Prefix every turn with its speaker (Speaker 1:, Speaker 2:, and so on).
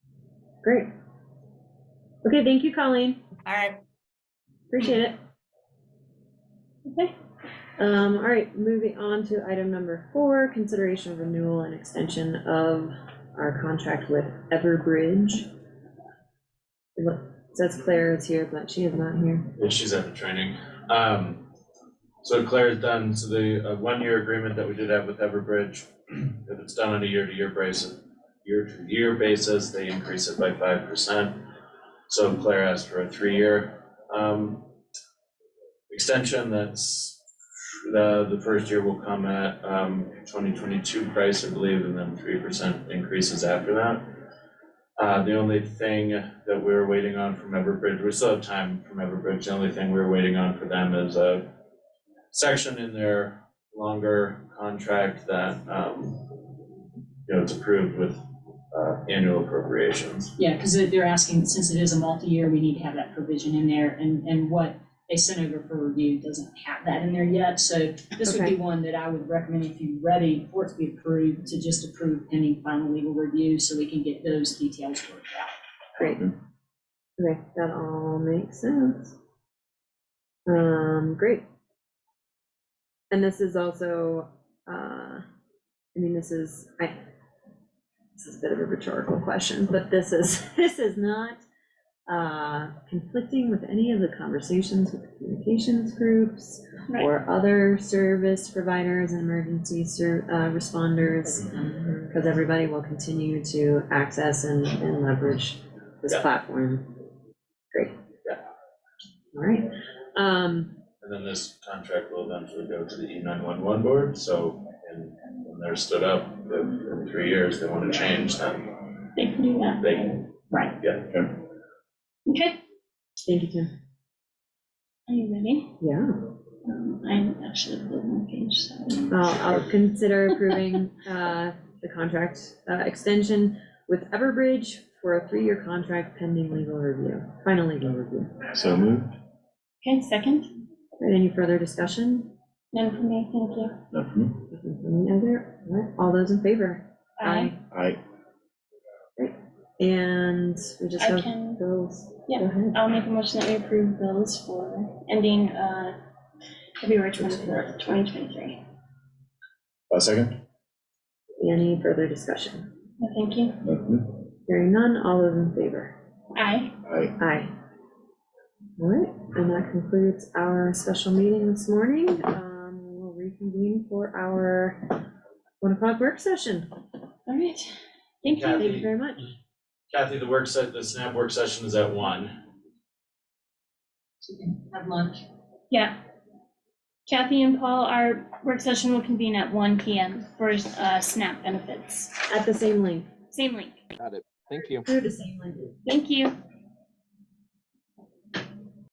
Speaker 1: Great. Okay, thank you, Colleen.
Speaker 2: All right,
Speaker 1: Appreciate it. Okay, um, all right, moving on to item number four, consideration of renewal and extension of our contract with Everbridge. Look, it says Claire is here, but she is not here.
Speaker 3: Yeah, she's at the training. Um, so Claire's done, so the, uh, one-year agreement that we did have with Everbridge, if it's done on a year-to-year basis, year-to-year basis, they increase it by five percent. So Claire asked for a three-year, um, extension that's, the, the first year will come at, um, twenty twenty-two price, I believe, and then three percent increases after that. Uh, the only thing that we were waiting on from Everbridge, we still have time from Everbridge, the only thing we were waiting on for them is a section in their longer contract that, um, you know, it's approved with, uh, annual appropriations.
Speaker 4: Yeah, because they're asking, since it is a multi-year, we need to have that provision in there, and, and what they sent over for review doesn't have that in there yet, so this would be one that I would recommend if you're ready for it to be approved, to just approve pending final legal review, so we can get those details worked out.
Speaker 1: Great. Okay, that all makes sense. Um, great. And this is also, uh, I mean, this is, I, this is a bit of a rhetorical question, but this is, this is not, uh, conflicting with any of the conversations with communications groups
Speaker 4: Right.
Speaker 1: or other service providers and emergency ser, uh, responders, because everybody will continue to access and, and leverage this
Speaker 3: Yeah.
Speaker 1: platform. Great.
Speaker 3: Yeah.
Speaker 1: All right, um,
Speaker 3: And then this contract will eventually go to the E nine one one board, so, and when they're stood up, if in three years, they wanna change, then
Speaker 4: They can do that.
Speaker 3: they,
Speaker 4: Right,
Speaker 3: yeah.
Speaker 4: okay,
Speaker 1: thank you, Tim.
Speaker 4: are you ready?
Speaker 1: Yeah,
Speaker 4: Um, I'm actually on my page, so.
Speaker 1: I'll, I'll consider approving, uh, the contract, uh, extension with Everbridge for a three-year contract pending legal review, final legal review.
Speaker 5: So moved,
Speaker 4: Okay, second,
Speaker 1: All right, Any further discussion?
Speaker 4: none for me, thank you.
Speaker 5: not for me.
Speaker 1: Any other? All right, All those in favor?
Speaker 5: I,
Speaker 1: And we just
Speaker 6: I
Speaker 1: have
Speaker 6: can-
Speaker 1: bills.
Speaker 6: Yeah.
Speaker 1: Go ahead.
Speaker 6: I'll make a motion that we approve bills for ending uh, February twenty-fourth, twenty twenty-three.
Speaker 5: a second,
Speaker 1: Any further discussion?
Speaker 6: Thank you.
Speaker 5: not for me.
Speaker 1: Hearing none, all those in favor?
Speaker 6: Aye.
Speaker 5: I,
Speaker 1: Aye. All right, and that concludes our special meeting this morning. Um, We'll reconvene for our one o'clock work session.
Speaker 6: All right. Thank you.
Speaker 1: Thank you very much.
Speaker 3: Kathy, the work set, the SNAP work session is at one.
Speaker 4: So you can Have lunch.
Speaker 6: Kathy and Paul, our work session will convene at one PM for uh, SNAP benefits.
Speaker 1: At the same link,
Speaker 6: Same link.
Speaker 7: Thank you.
Speaker 1: through the same link.
Speaker 6: Thank you.